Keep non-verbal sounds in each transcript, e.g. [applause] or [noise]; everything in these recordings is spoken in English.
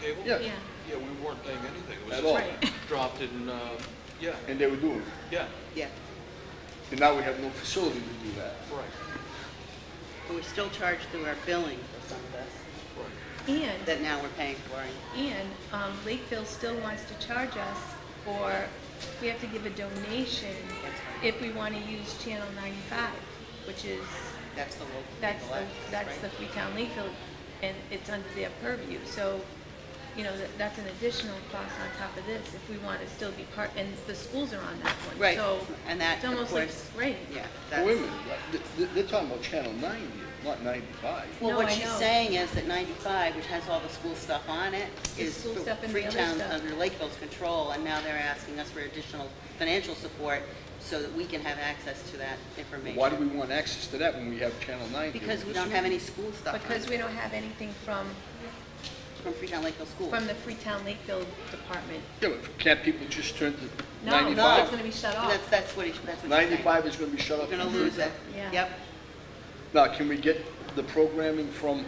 table? Yeah. Yeah. Yeah, we weren't paying anything. It was At just all. Right. [laughs] Dropped in, uh, yeah, and they were doing it. yeah, Yeah, And now we have no facility to do that. right, but we're still charged through our billing for some of this right. that And, now we're paying for. and- and um, Lakeville still wants to charge us for, we have to give a donation if we want to use Channel 95, which is, That's the local. that's legal the, access, that's right? the Free Town Lakeville, and it's under their purview. So, you know, that- that's an additional cost on top of this if we want to still be part, and the schools are on that one. Right, So and that, it's of almost like, course- right. Yeah. But Wait a that's- minute, th- th- they're talking about Channel 90, not 95. No, Well, what I she's know. saying is that 95, which has all the school stuff on it, The is school stuff and the other Freetown's stuff. under Lakeville's control, and now they're asking us for additional financial support so that we can have access to that information. Why do we want access to that when we have Channel 90? Because we don't have any school stuff on it Because we don't have anything from, from Freetown Lakeville Schools. from the Freetown Lakeville Department. Yeah, but can't people just turn to No, no, it's 95? gonna be shut off. That's, that's what he, that's what he's saying. 95 is going to be shut off. We're gonna from lose Freetown? it. Yeah. Yep, Now, can we get the programming from,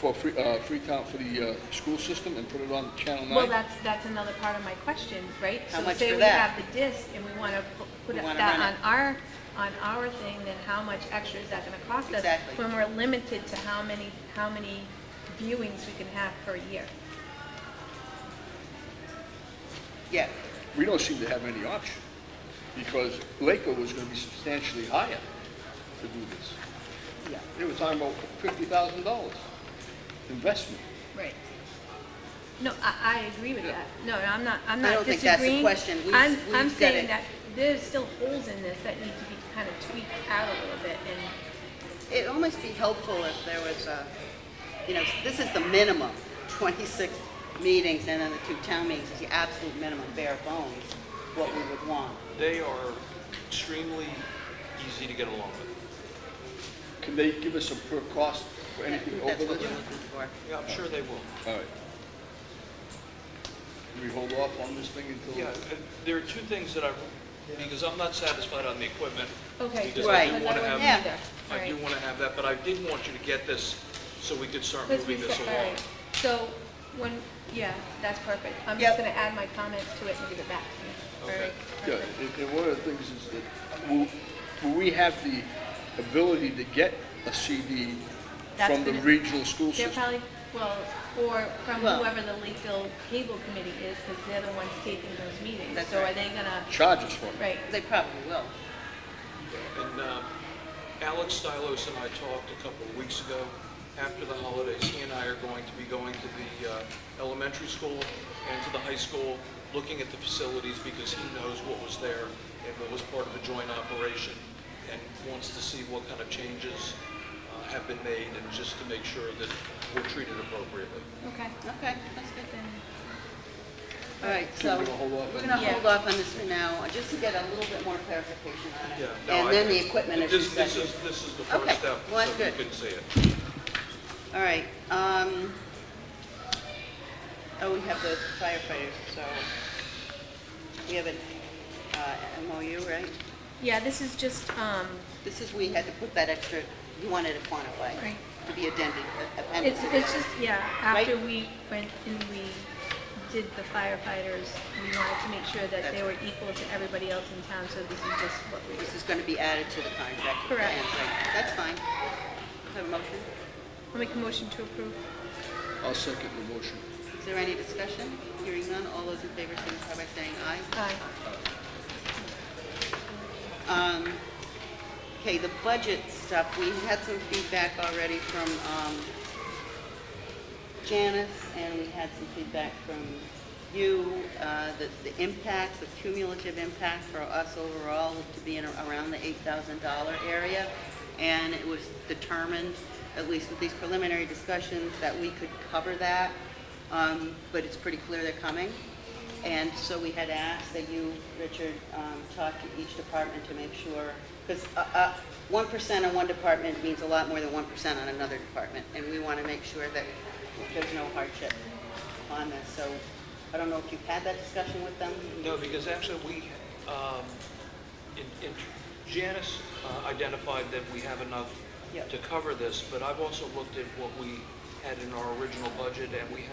for Free- uh, Freetown, for the uh, school system and put it on Channel 9? Well, that's, that's another part of my question, right? How much for So say that? we have the disc and we want to put We wanna that run on it. our, on our thing, then how much extra is that going to cost us? Exactly. When we're limited to how many, how many viewings we can have per year. yeah, We don't seem to have any option, because Lakeville was going to be substantially higher to do this. yeah. They were talking about $50,000 investment. Right. No, I, I agree with Yeah. that. No, I'm not, I'm I not don't think that's the disagreeing. question. We've- I'm, we've I'm said saying it. that there's still holes in this that need to be kind of tweaked out a little bit and, It'd almost be helpful if there was a, you know, this is the minimum, 26 meetings and then the two town meetings is the absolute minimum bare bones, what we would want. They are extremely easy to get along with. Can they give us a per cost for anything That's over what we're this? looking for. Yeah, I'm sure they will. All right. Can we hold off on this thing until? Yeah, and there are two things that I, because I'm not satisfied on the equipment. okay. Because Right. I do Because want I to wasn't have, either. All I do right. want to have that, but I did want you to get this so we could start Let's moving this reset, all along. right. So, when, yeah, that's perfect. I'm Yep. just gonna add my comments to it and give it back to you. All Okay. right, Yeah, perfect. and and one of the things is that, will, will we have the ability to get a CD That's from the gonna- regional school They're system? probably, well, or from Well- whoever the Lakeville Cable Committee is, because they're the ones taking those meetings. That's So are right. they gonna, Charge us for it. right, They probably will. And uh, Alex Stylos and I talked a couple of weeks ago. After the holidays, he and I are going to be going to the uh, elementary school and to the high school, looking at the facilities because he knows what was there and what was part of a joint operation and wants to see what kind of changes uh, have been made and just to make sure that we're treated appropriately. okay, Okay, that's good. then, All right, So so we're gonna hold off we're on gonna this? hold off on this for now, just to get a little bit more clarification on Yeah, it. no, I- And then the equipment is This this receptive. is, this is the first Okay, step, well, so that's you can good. see it. All right, um, oh, we have the firefighters, so we have an uh, MOU, right? yeah, this is just, um, This is, we had to put that extra, you wanted to quantify, Right. to be addended, uh, appended. it's, it's just, yeah, after Right. we went and we did the firefighters, we wanted to make sure that they That's- were equal to everybody else in town, so this is just what we This is going to be added to the contract. at the Correct. end, right. That's fine. Have a motion? I'll make a motion to approve. I'll second the motion. Is there any discussion? Hearing none, all those in favor signify by saying aye. Aye. Um, Okay, the budget stuff, we had some feedback already from um, Janice, and we had some feedback from you, uh, that the impact, the cumulative impact for us overall was to be in around the $8,000 area, and it was determined, at least with these preliminary discussions, that we could cover that, Um, but it's pretty clear they're coming. And so we had asked that you, Richard, um, talk to each department to make sure, because 1% on one department means a lot more than 1% on another department, and we want to make sure that there's no hardship on this. So I don't know if you've had that discussion with them? No, because actually, we, um, in- in- Janice uh, identified that we have enough Yep. to cover this, but I've also looked at what we had in our original budget, and we had